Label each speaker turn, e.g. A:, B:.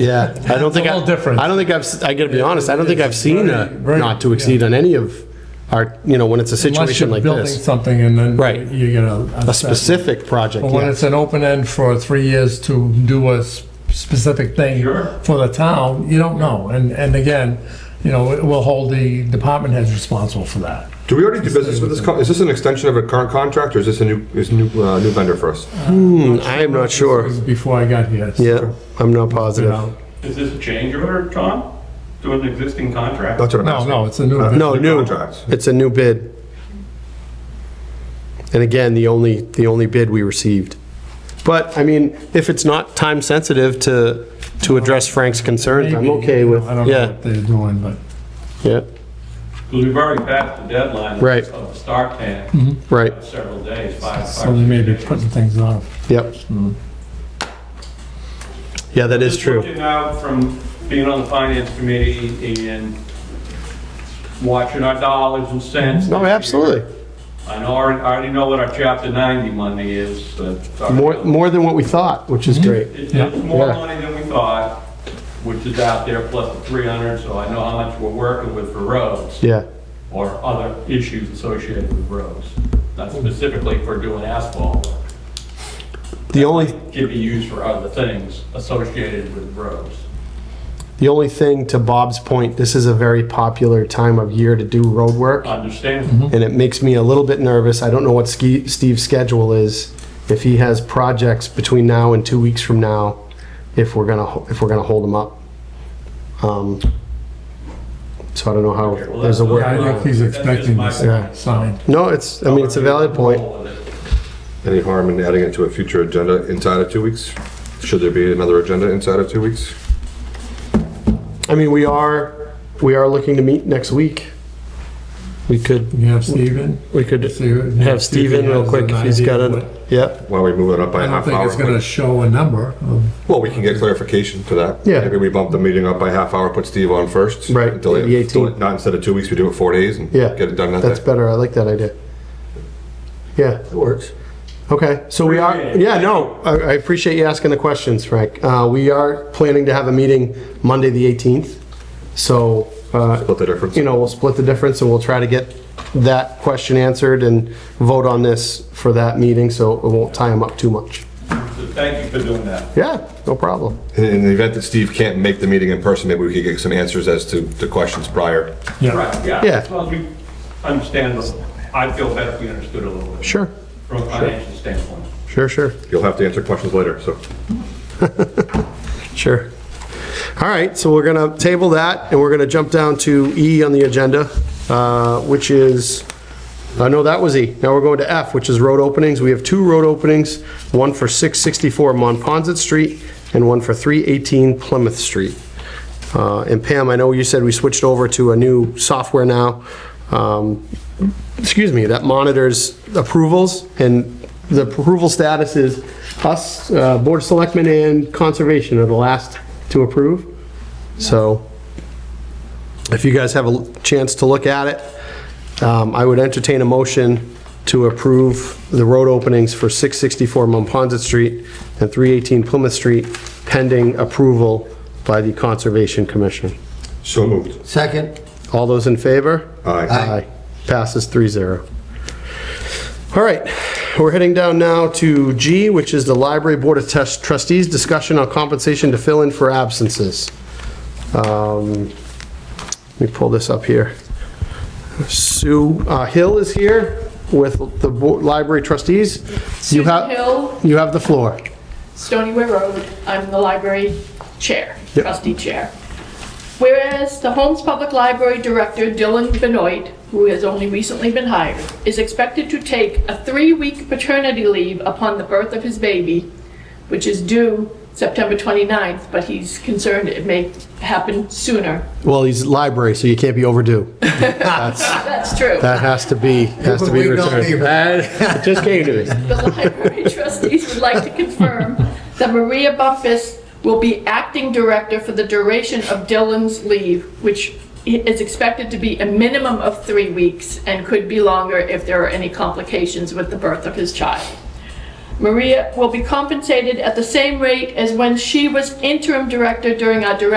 A: Yeah, I don't
B: It's a
A: think. I-
B: little different.
A: I don't think I've, s- I gotta be
B: It-
A: honest, I don't think
B: it's
A: I've seen a
B: very- very-
A: not to exceed on any of our, you know, when it's a
B: Unless
A: situation
B: you're
A: like
B: building
A: this.
B: something and then
A: Right.
B: you get a.
A: A specific project,
B: But when it's
A: yes.
B: an open end for three years to do a s- specific thing for the town, you don't know. And, and again, you know, we'll hold the department heads responsible for that.
C: Do we already do business with this? co- Is this an extension of a current contract, or is this a new, is new, uh, new vendor for us?
A: Hmm, I am not sure.
B: This was Before I got here. so,
A: Yeah, I'm not
B: you
A: positive.
B: know.
D: Is this a change order, Tom, to an existing contract?
C: That's what I'm
B: No,
C: asking.
B: no, it's a Uh, new.
A: Uh, No, new.
C: contracts.
A: It's a new bid. And again, the only, the only bid we received. But, I mean, if it's not time sensitive to, to address Frank's concerns, I'm
B: Uh-huh. Maybe,
A: okay
B: you know,
A: with,
B: I don't know
A: yeah,
B: what they're doing, but.
A: yeah,
D: Because we've already passed the deadline. of-
A: Right. Mm-hmm.
D: Of the start plan,
A: right,
D: several days, five, five.
B: So they may be
D: six days.
B: putting things off.
A: yep.
B: Hmm.
A: Yeah, that is
D: Just
A: true.
D: Looking out from being on the finance committee and watching our dollars and cents.
A: No,
D: this year.
A: absolutely.
D: I know, I already know what our chapter 90 money is, but. it's already-
A: More, more than what we thought, which is great.
D: It's it's more
A: Yeah.
D: money than we thought, which is out there, plus the 300, so I know how much we're working with for roads.
A: Yeah,
D: or other issues associated with roads, not specifically for doing asphalt work.
A: the only,
D: Can be used for other things associated with roads.
A: the only thing to Bob's point, this is a very popular time of year to do road work.
D: Uh. Understand?
A: and it makes me a little bit nervous. I don't know what Ski- Steve's schedule is, if he has projects between now and two weeks from now, if we're gonna, ho- if we're gonna hold him up. Um, So I don't know how,
D: Okay, well,
A: there's a
D: that's-
B: I
A: word.
B: think he's
D: That's just
B: expecting
D: my-
B: this uh, sign.
A: No, it's, I mean, it's a valid point.
C: Any harm in adding it to a future agenda inside of two weeks? Should there be another agenda inside of two weeks?
A: I mean, we are, we are looking to meet next week. We could,
B: You have Steven?
A: we could have Steve in real quick if he's got it. Yeah,
C: Why are we moving it up by
B: I
C: a
B: don't
C: half
B: think it's gonna
C: hour?
B: show a number. of-
C: Well, we can get clarification to that.
A: Yeah.
C: Maybe we bump the meeting up by half hour, put Steve on first.
A: Right,
C: Until it-
A: the
C: until
A: 18th.
C: it- Not instead of two weeks, we do it four days and
A: Yeah,
C: get it done that
A: that's
C: day.
A: better. I like that idea. Yeah.
C: That works.
A: Okay, so we are,
D: Appreciate it.
A: yeah, no, I I appreciate you asking the questions, Frank. Uh, We are planning to have a meeting Monday, the 18th, so, uh,
C: Split the difference.
A: you know, we'll split the difference and we'll try to get that question answered and vote on this for that meeting, so it won't tie them up too much.
D: So Thank you for doing that.
A: Yeah, no problem.
C: In- In the event that Steve can't make the meeting in person, maybe we could get some answers as to the questions prior.
B: Yeah,
D: Right, yeah.
A: Yeah.
D: As long as we understand, this, I'd feel better if we understood a little bit.
A: Sure,
D: From a financial standpoint.
A: sure, sure,
C: You'll have to answer questions later, so.
A: sure. All right, so we're gonna table that and we're gonna jump down to E on the agenda, uh, which is Uh, no, that was E. Now we're going to F, which is road openings. We have two road openings, one for 664 Monpont Street and one for 318 Plymouth Street. Uh, And Pam, I know you said we switched over to a new software now, um, excuse me, that monitors approvals, and the approval status is us, uh, Board of Selectmen and Conservation are the last to approve. So if you guys have a chance to look at it, um, I would entertain a motion to approve the road openings for 664 Monpont Street and 318 Plymouth Street pending approval by the Conservation Commission.
C: So moved.
E: Second,
A: All those in favor?
C: Aye.
A: Passes 3-0. All right, we're heading down now to G, which is the Library Board of Trus- Trustees discussion on compensation to fill in for absences. Um, Let me pull this up here. Sue uh, Hill is here with the bo- library trustees. You
F: Susan
A: have,
F: Hill,
A: you have the floor.
F: Stony Way Road. I'm the library chair,
A: Yep.
F: trustee chair. Whereas the Holmes Public Library Director Dylan Benoit, who has only recently been hired, is expected to take a three-week paternity leave upon the birth of his baby, which is due September 29th, but he's concerned it may happen sooner.
A: Well, he's library, so you can't be overdue.
F: That's true.
A: That has to be, has to be
E: We don't
A: returned.
E: leave.
A: It just came to me.
F: the library trustees would like to confirm that Maria Buffus will be acting director for the duration of Dylan's leave, which is expected to be a minimum of three weeks and could be longer if there are any complications with the birth of his child. Maria will be compensated at the same rate as when she was interim director during our director